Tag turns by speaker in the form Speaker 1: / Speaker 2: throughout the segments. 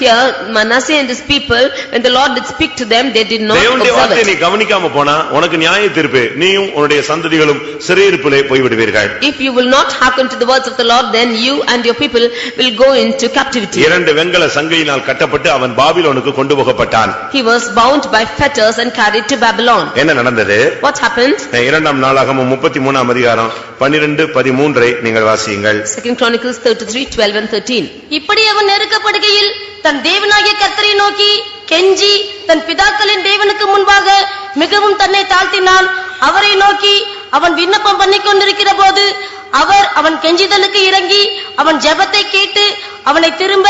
Speaker 1: Here Manasseh and his people, when the Lord did speak to them, they did not
Speaker 2: தேவனுடைய
Speaker 1: observe
Speaker 2: வார்த்தையை
Speaker 1: it.
Speaker 2: நீ கவனிக்காம போனா உனக்கு நியாய தீர்ப்பு நீயும் உன்னுடைய சந்ததிகளும் சிறையிருப்பிலே போய்விடுவீர்கள்
Speaker 1: If you will not hearken to the words of the Lord, then you and your people will go into captivity.
Speaker 2: இரண்டு வெங்கல சங்கையினால் கட்டப்பட்டு அவன் பாபிலோனுக்கு கொண்டு போகப்பட்டான்
Speaker 1: He was bound by fetters and carried to Babylon.
Speaker 2: என்ன நடந்தது
Speaker 1: What happened?
Speaker 2: இரண்டாம் நாளாகமும் முப்பத்தி மூணாம் அதிகாரம் பன்னிரண்டு பதிமூன்றை நீங்கள் வாசியுங்கள்
Speaker 1: Second Chronicles thirty-three, twelve and thirteen.
Speaker 3: இப்படி அவன் நெருக்கப்படுகையில் தன் தேவனாகிய கர்த்தரை நோக்கி கெஞ்சி தன் பிதாக்களின் தேவனுக்கு முன்பாக மிகவும் தன்னை தாழ்த்தினான் அவரை நோக்கி அவன் விண்ணப்பம் பண்ணிக் கொண்டிருக்கிற போது அவர் அவன் கெஞ்சிதலுக்கு இறங்கி அவன் ஜெபத்தை கேட்டு அவனை திரும்ப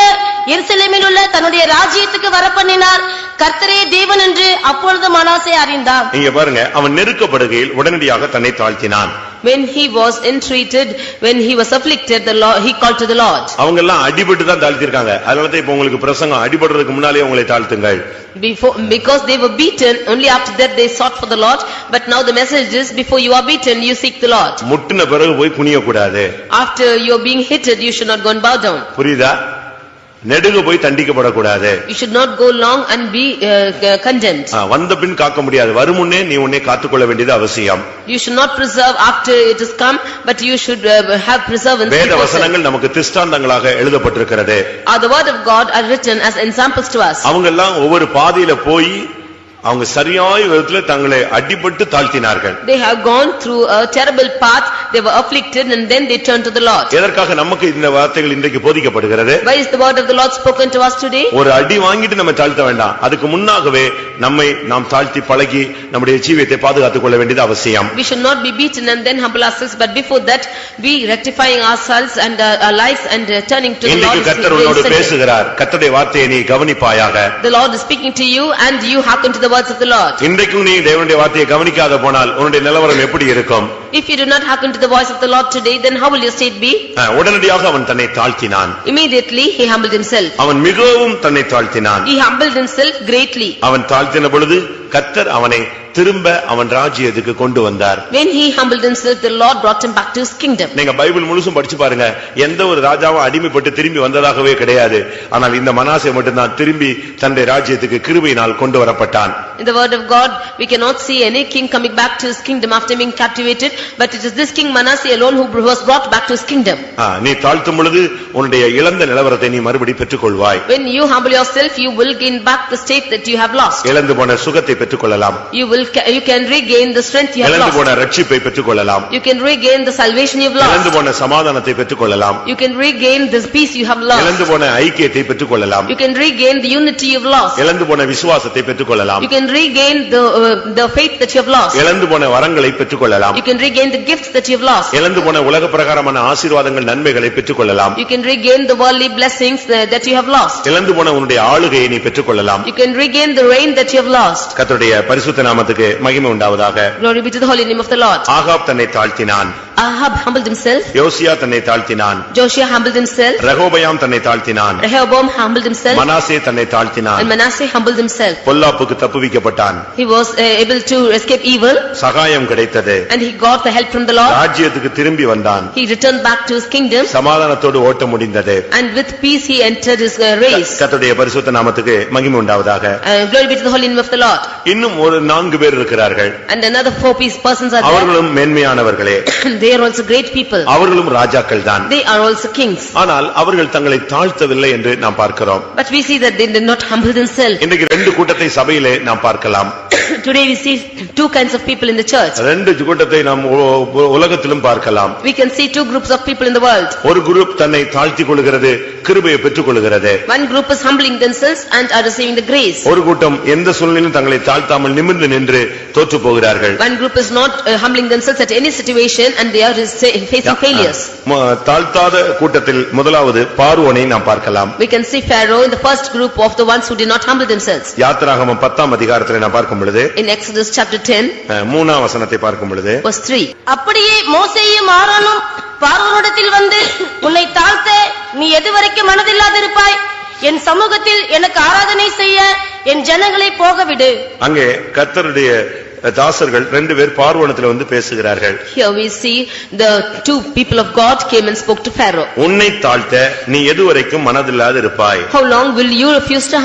Speaker 3: எருசலேமில் உள்ள தன்னுடைய ராஜ்யத்துக்கு வரப்பண்ணினார் கர்த்தரே தேவன் என்று அப்பொழுது மனாசே அறிந்தான்
Speaker 2: நீங்க பாருங்க அவன் நெருக்கப்படுகையில் உடனடியாக தன்னை தாழ்த்தினான்
Speaker 1: When he was entreated, when he was afflicted, the Lord, he called to the Lord.
Speaker 2: அவங்க எல்லாம் அடிபட்டு தான் தாழ்த்திருக்காங்க அதனால தான் இப்ப உங்களுக்கு பிரசங்கம் அடிபடுறதுக்கு முன்னாலே உங்களை தாழ்த்துங்கள்
Speaker 1: Before, because they were beaten, only after that they sought for the Lord, but now the message is, before you are beaten, you seek the Lord.
Speaker 2: முட்டின பிறகு போய் குனியக்கூடாது
Speaker 1: After you are being hitted, you should not go and bow down.
Speaker 2: புரியுதா நெடுகு போய் தண்டிக்கப்படக்கூடாது
Speaker 1: You should not go long and be uh, condemned.
Speaker 2: ஆ, வந்த பின் காக்க முடியாது வருமுன்னே நீ உன்னை காத்துக்கொள்ள வேண்டியது அவசியம்
Speaker 1: You should not preserve after it is come, but you should uh, have preservance.
Speaker 2: வேத
Speaker 1: before sin.
Speaker 2: வசனங்கள் நமக்கு திஷ்டாந்தங்களாக எழுதப்பட்டிருக்கிறது
Speaker 1: Are the word of God are written as examples to us.
Speaker 2: அவங்க எல்லாம் ஒவ்வொரு பாதையில போய் அவங்க சரியாய விதத்துல தங்களை அடிபட்டு தாழ்த்தினார்கள்
Speaker 1: They have gone through a terrible path, they were afflicted and then they turned to the Lord.
Speaker 2: எதற்காக நமக்கு இந்த வார்த்தைகள் இன்றைக்கு போதிக்கப்படுகிறது
Speaker 1: Why is the word of the Lord spoken to us today?
Speaker 2: ஒரு அடி வாங்கிட்டு நம்ம தாழ்த்த வேண்டாம் அதுக்கு முன்னாகவே நம்மை நாம் தாழ்த்தி பழகி நம்முடைய ஜீவியத்தை பாதுகாத்துக் கொள்ள வேண்டியது அவசியம்
Speaker 1: We should not be beaten and then humble ourselves, but before that, we rectifying ourselves and uh, our lives and uh, turning to the Lord.
Speaker 2: இன்றைக்கு
Speaker 1: is
Speaker 2: கர்த்தர்
Speaker 1: very
Speaker 2: உன்னோடு
Speaker 1: essential.
Speaker 2: பேசுகிறார் கர்த்தருடைய வார்த்தையை நீ கவனிப்பாயாக
Speaker 1: The Lord is speaking to you and you hearken to the words of the Lord.
Speaker 2: இன்றைக்கும் நீ தேவனுடைய வார்த்தையை கவனிக்காத போனால் உன்னுடைய நிலவரம் எப்படி இருக்கும்
Speaker 1: If you do not hearken to the voice of the Lord today, then how will your state be?
Speaker 2: அஹ், உடனடியாக அவன் தன்னை தாழ்த்தினான்
Speaker 1: Immediately, he humbled himself.
Speaker 2: அவன் மிகவும் தன்னை தாழ்த்தினான்
Speaker 1: He humbled himself greatly.
Speaker 2: அவன் தாழ்த்தின பொழுது கர்த்தர் அவனை திரும்ப அவன் ராஜ்யத்துக்கு கொண்டு வந்தார்
Speaker 1: When he humbled himself, the Lord brought him back to his kingdom.
Speaker 2: நீங்க பைபிள் முழுசும் படிச்சு பாருங்க எந்த ஒரு ராஜாவும் அடிமைப்பட்டு திரும்பி வந்ததாகவே கிடையாது ஆனால் இந்த மனாசே மட்டும்தான் திரும்பி தன்னுடைய ராஜ்யத்துக்கு கிருபையினால் கொண்டு வரப்பட்டான்
Speaker 1: In the word of God, we cannot see any king coming back to his kingdom after being captivated, but it is this king Manasseh alone who was brought back to his kingdom.
Speaker 2: ஆ, நீ தாழ்த்தும் பொழுது உன்னுடைய இழந்த நிலவரத்தை நீ மறுபடி பெற்றுக்கொள்வாய்
Speaker 1: When you humble yourself, you will gain back the state that you have lost.
Speaker 2: இழந்து போன சுகத்தை பெற்றுக்கொள்ளலாம்
Speaker 1: You will, ca- you can regain the strength you have
Speaker 2: இழந்து
Speaker 1: lost.
Speaker 2: போன ரட்சிப்பை பெற்றுக்கொள்ளலாம்
Speaker 1: You can regain the salvation you've
Speaker 2: இழந்து
Speaker 1: lost.
Speaker 2: போன சமாதானத்தை பெற்றுக்கொள்ளலாம்
Speaker 1: You can regain this peace you have
Speaker 2: இழந்து
Speaker 1: lost.
Speaker 2: போன ஐக்கியத்தை பெற்றுக்கொள்ளலாம்
Speaker 1: You can regain the unity you've lost.
Speaker 2: இழந்து போன விசுவாசத்தை பெற்றுக்கொள்ளலாம்
Speaker 1: You can regain the, uh, the faith that you've lost.
Speaker 2: இழந்து போன வரங்களை பெற்றுக்கொள்ளலாம்
Speaker 1: You can regain the gifts that you've lost.
Speaker 2: இழந்து போன உலக பிரகாரமான ஆசீர்வாதங்கள் நன்மைகளை பெற்றுக்கொள்ளலாம்
Speaker 1: You can regain the worldly blessings uh, that you have lost.
Speaker 2: இழந்து போன உன்னுடைய ஆளுகையை நீ பெற்றுக்கொள்ளலாம்
Speaker 1: You can regain the reign that you have lost.
Speaker 2: கர்த்தருடைய பரிசுத்த நாமத்துக்கு மகிமை உண்டாவதாக
Speaker 1: Glory be to the holy name of the Lord.
Speaker 2: Ahab தன்னை தாழ்த்தினான்
Speaker 1: Ahab humbled himself.
Speaker 2: யோசியா தன்னை தாழ்த்தினான்
Speaker 1: Joshua humbled himself.
Speaker 2: ரகோபயாம் தன்னை தாழ்த்தினான்
Speaker 1: Rehoboam humbled himself.
Speaker 2: மனாசே தன்னை
Speaker 1: And
Speaker 2: தாழ்த்தினான்
Speaker 1: Manasseh humbled himself.
Speaker 2: பொல்லாப்புக்கு தப்புவிக்கப்பட்டான்
Speaker 1: He was uh, able to escape evil
Speaker 2: சகாயம் கிடைத்தது
Speaker 1: and he got the help from the Lord.
Speaker 2: ராஜ்யத்துக்கு திரும்பி வந்தான்
Speaker 1: He returned back to his kingdom
Speaker 2: சமாதானத்தோடு ஓட்ட முடிந்தது
Speaker 1: and with peace he entered his uh, race.
Speaker 2: கர்த்தருடைய பரிசுத்த நாமத்துக்கு மகிமை உண்டாவதாக
Speaker 1: Uh, Glory be to the holy name of the Lord.
Speaker 2: இன்னும் ஒரு நான்கு பேர் இருக்கிறார்கள்
Speaker 1: And another four peace persons are there.
Speaker 2: அவர்களும் மேன்மையானவர்களே
Speaker 1: They are also great people.
Speaker 2: அவர்களும் ராஜாக்கள் தான்
Speaker 1: They are also kings.
Speaker 2: ஆனால் அவர்கள் தங்களை தாழ்த்தவில்லை என்று நாம் பார்க்கிறோம்
Speaker 1: But we see that they did not humble themselves.
Speaker 2: இன்றைக்கு ரெண்டு கூட்டத்தை சபையிலே நாம் பார்க்கலாம்
Speaker 1: Today we see two kinds of people in the church.
Speaker 2: ரெண்டு கூட்டத்தை நாம் உ- உ- உலகத்திலும் பார்க்கலாம்
Speaker 1: We can see two groups of people in the world.
Speaker 2: ஒரு குரூப் தன்னை தாழ்த்திக் கொள்கிறது கிருபையை பெற்றுக் கொள்கிறது
Speaker 1: One group is humbling themselves and are receiving the grace.
Speaker 2: ஒரு கூட்டம் எந்த சூழ்நிலையிலும் தங்களை தாழ்த்தாமல் நிமிர்ந்து நின்று தோற்று போகிறார்கள்
Speaker 1: One group is not uh, humbling themselves at any situation and they are rece- facing failures.
Speaker 2: ம- தாழ்த்தாத கூட்டத்தில் முதலாவது பார்வோனை நாம் பார்க்கலாம்
Speaker 1: We can see Pharaoh in the first group of the ones who did not humble themselves.
Speaker 2: யாத்திராகமம் பத்தாம் அதிகாரத்தில் நாம் பார்க்கும் பொழுது
Speaker 1: In Exodus chapter 10,
Speaker 2: அஹ், மூணாம் வசனத்தை பார்க்கும் பொழுது
Speaker 1: verse 3.
Speaker 3: அப்படியே மோசேயும் ஆரோனும் பார்வோனிடத்தில் வந்து உன்னை தாழ்த்த நீ எதுவரைக்கும் மனதில்லாதிருப்பாய் என் சமூகத்தில் எனக்கு ஆராதனை செய்ய என் ஜனங்களை போகவிடு
Speaker 2: அங்கே கர்த்தருடைய தாசர்கள் ரெண்டு பேர் பார்வணத்துல வந்து பேசுகிறார்கள்
Speaker 1: Here we see the two people of God came and spoke to Pharaoh.
Speaker 2: உன்னை தாழ்த்த நீ எதுவரைக்கும் மனதில்லாது இருப்பாய்
Speaker 1: How long will you refuse to